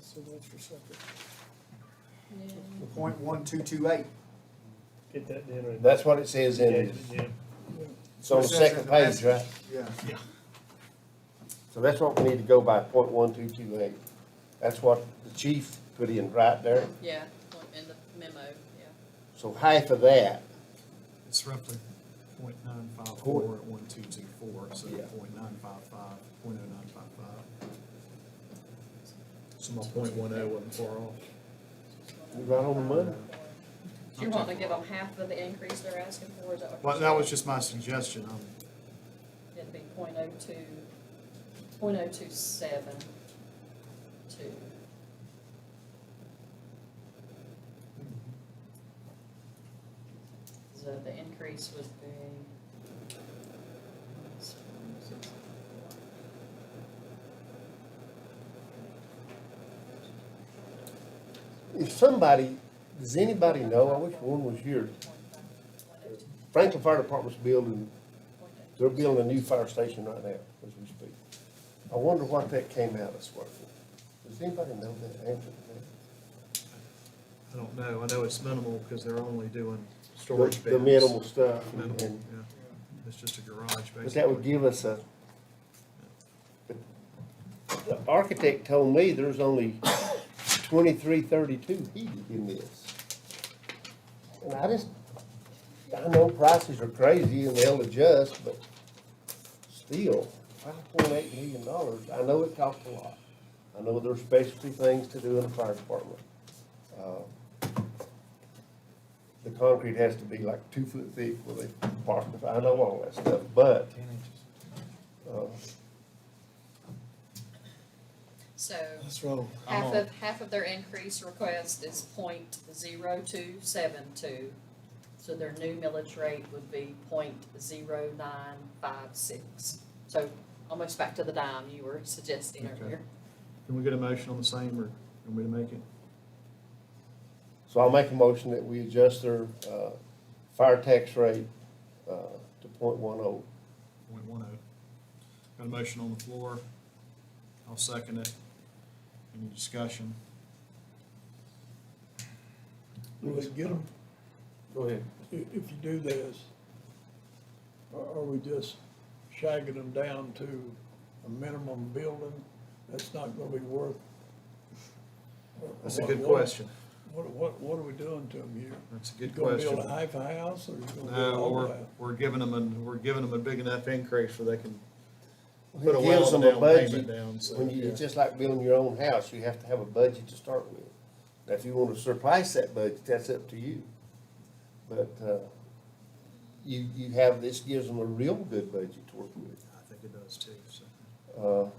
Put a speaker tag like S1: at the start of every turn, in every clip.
S1: So that's for separate.
S2: Yeah.
S1: The point one two two eight.
S3: Get that down right.
S4: That's what it says
S3: Yeah,
S4: in,
S3: yeah.
S4: it's on the second page, right?
S1: Yeah.
S4: So that's what we need to go by, point one two two eight. That's what the chief put in right there.
S2: Yeah, like in the memo, yeah.
S4: So half of that,
S5: It's roughly point nine five four at one two two four, so
S4: Yeah.
S5: point nine five five, point oh nine five five. So my point one oh wasn't far off.
S4: you right on the money.
S2: Do you want to give them half of the increase they're asking for, is that
S5: Well,
S2: what? you're
S5: that was
S2: saying?
S5: just my suggestion, um,
S2: It'd be point oh two, point oh two seven, two. So the increase would be.
S4: If somebody, does anybody know, I wish one was here,
S2: oh
S4: Franklin Fire Department's building, they're building a new fire station right now, as we speak. I wonder what that came out as worth. Does anybody know that answer to that?
S5: I don't know, I know it's minimal because they're only doing storage
S4: The-
S5: bins.
S4: The minimal stuff.
S5: Minimal,
S4: and-
S5: yeah, it's just a garage basically.
S4: But that would give us a, but the architect told me there's only twenty-three thirty-two heated in this. And I just, I know prices are crazy and they'll adjust, but still, five point eight million dollars, I know it costs a lot. I know there's specialty things to do in the fire department. Uh, The concrete has to be like two foot thick with a bark, I know all that stuff, but uh,
S2: So
S1: Let's roll.
S2: half of, half of their increase request is point zero two seven two. So their new millage rate would be point zero nine five six. So almost back to the dime you were suggesting
S5: Okay.
S2: earlier.
S5: Can we get a motion on the same or can we make it?
S4: So I'll make a motion that we adjust their, uh, fire tax rate, uh, to point one oh.
S5: Point one oh. Got a motion on the floor. I'll second it. Any discussion?
S1: Will they get them
S4: Go ahead.
S1: if, if you do this? Or are we just shagging them down to a minimum building that's not gonna be worth?
S5: That's a good
S1: What- what-
S5: question.
S1: What, what, what are we doing to them here?
S5: That's a good
S1: You
S5: question.
S1: gonna build a half a house or you gonna build
S5: No,
S1: all
S5: we're,
S1: that?
S5: we're giving them, an we're giving them a big enough increase where they can put a
S4: It
S5: well
S4: gives
S5: down
S4: them a
S5: payment
S4: budget,
S5: down, so.
S4: when you,
S5: yeah.
S4: it's just like building your own house, you have to have a budget to start with. Now, if you wanna surpass that budget, that's up to you. But, uh, you, you have, this gives them a real good budget to work with.
S5: I think it does too, so.
S4: Uh,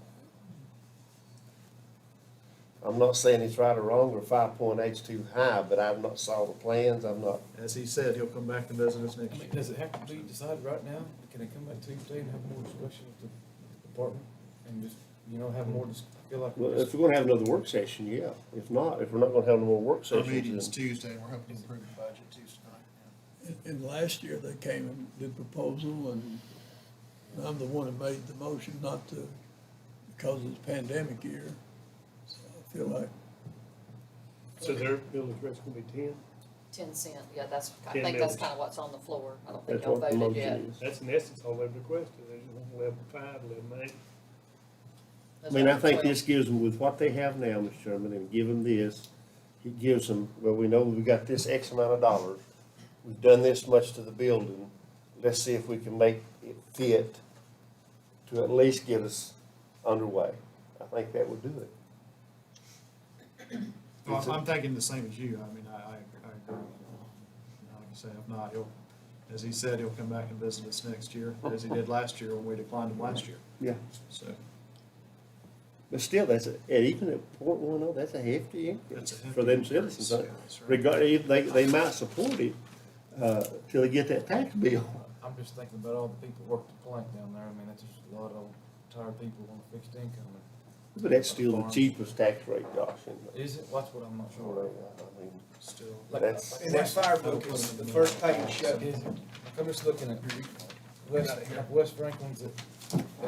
S4: I'm not saying it's right or wrong, or five point eight's too high, but I've not saw the plans, I've not
S5: As he said, he'll come back and visit us
S6: I
S5: next
S6: mean,
S5: year.
S6: does it have to be decided right now? Can it come back Tuesday and have more discussion with the department? And just, you know, have more, dis feel like
S4: Well,
S6: we're
S4: if
S6: just,
S4: we're gonna have another work session, yeah. If not, if we're not gonna have no more work
S5: Our
S4: sessions.
S5: meeting's
S4: then-
S5: Tuesday, and we're hoping to approve the budget Tuesday night.
S1: And- And last year, they came and did proposal, and I'm the one who made the motion not to, because of the pandemic year. So I feel like,
S3: So their building rate's gonna be ten?
S2: Ten cent, yeah, that's, I
S3: 10
S2: think that's
S3: mills.
S2: kind of what's on the floor. I don't think
S4: That's
S2: y'all
S4: what the
S2: voted yet.
S4: motion is.
S3: That's in essence all they've requested, they just want level five, level eight.
S4: I
S2: Those
S4: mean, I
S2: are
S4: think
S2: twelve.
S4: this gives them, with what they have now, Mr. Chairman, and give them this, it gives them, well, we know we got this X amount of dollars. We've done this much to the building. Let's see if we can make it fit to at least get us underway. I think that would do it.
S5: Well, I'm- I'm thinking the same as you, I mean, I, I, I agree. You know, Like I say, if not, he'll, as he said, he'll come back and visit us next year, as he did last year when we declined him last year,
S4: Yeah.
S5: so.
S4: But still, that's, a- and even at point one oh, that's a hefty increase
S5: that's a
S4: for them
S5: hefty increase.
S4: citizens.
S5: Yeah, that's right.
S4: Regard, they, they might support it, uh, till they get that tax bill.
S6: I'm just thinking about all the people who work the plank down there. I mean, that's just a lot of tired people on a fixed income.
S4: But that's still the cheapest tax rate, Josh, and,
S6: Is it? That's what I'm not
S4: or,
S6: sure.
S4: I mean,
S5: Still.
S6: Like,
S4: That's-
S6: like-
S7: In that fire book, it's the first page shows.
S6: Is it? Like, I'm just looking at West, West Franklin's at